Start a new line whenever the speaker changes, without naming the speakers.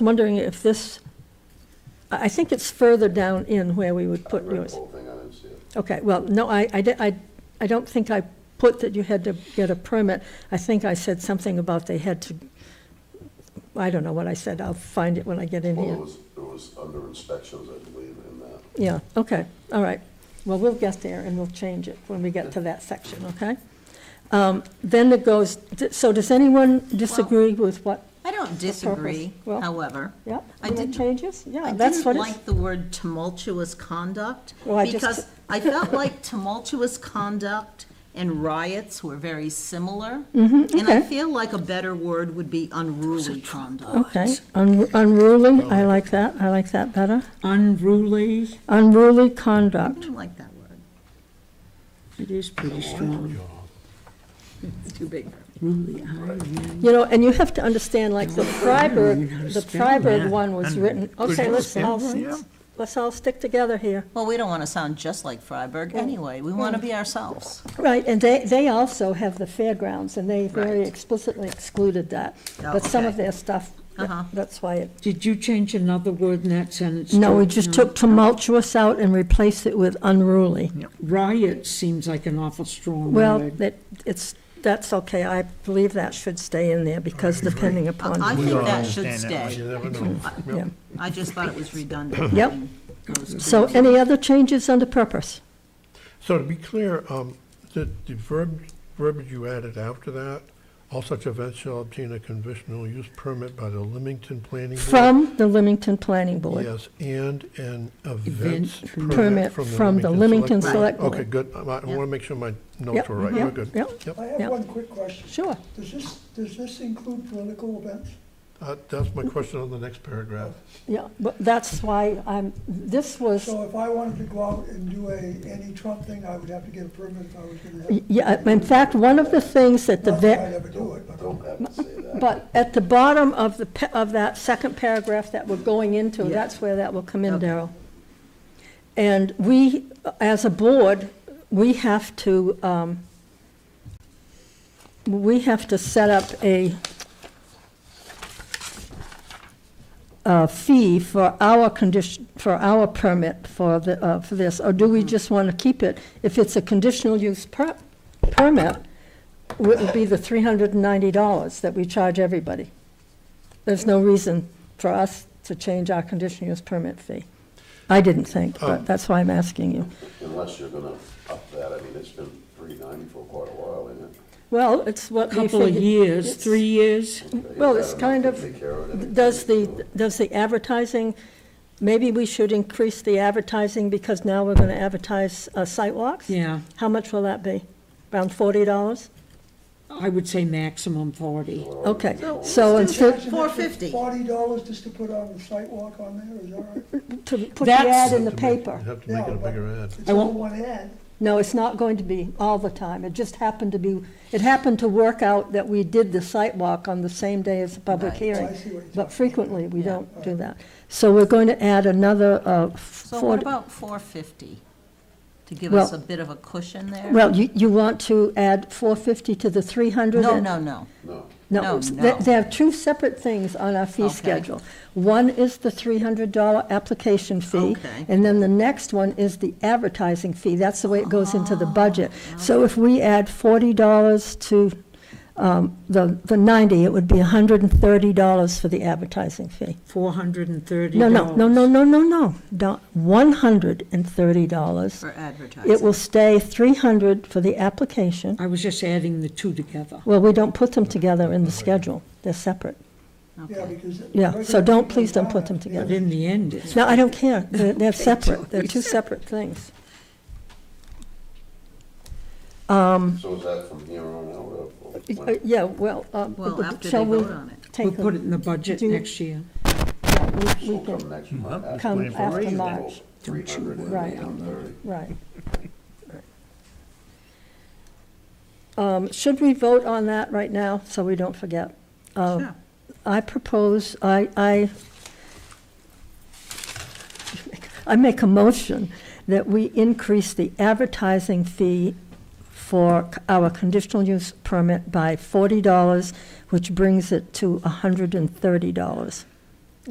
I'm wondering if this, I I think it's further down in where we would
I
put
read the
yours.
whole thing, I didn't see it.
Okay, well, no, I, I, di- I, I don't think I put that you had to get a permit. I think I said something about they had to, I don't know what I said, I'll find it when I get in
Well,
here.
it was, it was under inspections, I believe, in that.
Yeah, okay, all right. Well, we'll get there and we'll change it when we get to that section, okay? Um, Then it goes, so does anyone disagree with what,
I don't disagree,
Well,
however.
yeah?
I
you want
didn't-
Changes? Yeah,
I
that's
didn't
what it's,
like the word tumultuous conduct,
Well, I just-
because I felt like tumultuous conduct and riots were very similar. And I
Mm-hmm, okay.
feel like a better word would be unruly conduct.
okay. Un- Unruly,
Oh.
I like that, I like that better.
Unruly,
Unruly
I
conduct,
don't like that word.
it is pretty strong.
It's too big.
Ruly, aye,
you know, and you have to understand, like, the
even know how
Freiburg,
to
the
spell
Freiburg
that.
one was written, okay, let's all, let's all stick together here.
Well, we don't want to sound just like Freiburg anyway. We want to be ourselves.
Right, and they, they also have the fairgrounds, and they very
Right.
explicitly excluded that.
Oh,
But some of
okay.
their stuff, that-
Uh-huh.
that's why it.
yeah. Did you change another word in that sentence?
No,
too?
we
Mm.
just took tumultuous out and replaced it with unruly.
Riot seems like an awful strong
Well,
word.
that, it's, that's okay, I believe that should stay in there, because depending upon.
I think
don't
that should
understand that,
stay.
you never know.
yeah.
I just thought it was redundant.
Yep.
having those two.
So any other changes under purpose?
So to be clear, um, the, the verb, verbiage you added after that, all such events shall obtain a conditional use permit by the Leamington Planning Board.
From the Leamington Planning Board.
Yes, and an events
Event
permit
permit
from the Leamington Select Board. Okay,
Select
good. I want
Yep.
to make sure my
Yep,
notes were right.
yep,
We're good.
yep.
Yep.
I
Yeah.
have one quick question.
Sure.
Does this, does this include political events?
Uh, That's my question on the next paragraph.
Yeah, but that's why I'm, this was,
So if I wanted to go out and do a anti-Trump thing, I would have to get a permit if I was gonna have.
yeah, in fact, one of the things that the.
Not
ve-
that I'd ever do it, but.
Don't have to say that.
But at the bottom of the, pa- of that second paragraph that we're going into, that's where that will come in,
Okay.
Daryl. And we, as a board, we have to, um, we have to set up a, a fee for our condition, for our permit for the, uh, for this, or do we just want to keep it? If it's a conditional use per, permit, it would be the three hundred and ninety dollars that we charge everybody. There's no reason for us to change our conditional use permit fee. I didn't think, but that's why I'm asking you.
Unless you're gonna up that, I mean, it's been three ninety for quite a while, isn't it?
Well, it's what we
Couple of
figured-
years,
it's-
three years?
Mm, Well, it's
Is that
kind
enough
of-
to take care of it?
Does the, does the advertising, maybe we should increase the advertising because now we're gonna advertise uh, sidewalks?
Yeah,
How much will that be? Around forty dollars?
I would say maximum forty.
Okay, so instead,
$4.50.
Forty dollars just to put on the sidewalk on there, is that all right?
to put the
That's-
ad in the
To make-
paper.
You have to make it a
Yeah, but-
bigger ad.
It's
I
all
won't-
one ad.
No, it's not going to be all the time. It just happened to be, it happened to work out that we did the site walk on the same day as the public
Right.
hearing.
I see what you're talking
But
about.
frequently, we don't do that. So we're going to add another, uh,
So what
forty.
about 450? To give us a
Well-
bit of a cushion there?
Well, you, you want to add four fifty to the three hundred?
No, no, no.
No.
no,
No, there,
no.
there are two separate things on our fee
Okay.
schedule. One is the three hundred dollar application fee.
Okay.
And then the next one is the advertising fee. That's the way it goes into the budget.
Ah,
So if we add forty dollars to, um, the, the ninety, it would be hundred and thirty dollars for the advertising fee.
Four hundred and thirty
No,
dollars.
no, no, no, no, no, no, don't, one hundred and thirty dollars.
For advertising.
It will stay three hundred for the application.
I was just adding the two together.
Well, we don't put them together in the schedule. They're separate.
Yeah, because.
Yeah, so don't, please don't put them
But
together.
in the end, it's,
No, I don't care. They're, they're separate. They're two separate things.
Uh,
Mm.
So is that from here on out? or- or
Uh,
when-
Yeah, well, um,
Well, after they
shall we
vote on it.
we'll
take
put it
them?
in the budget
Do-
next year.
We
So
can,
come next month. after-
come
plan for
after
raising
March.
Three hundred and
Right.
one thirty.
right. Um, Should we vote on that right now, so we don't forget? Uh,
Sure.
I propose, I, I, I make a motion that we increase the advertising fee for our conditional use permit by forty dollars, which brings it to hundred and thirty dollars.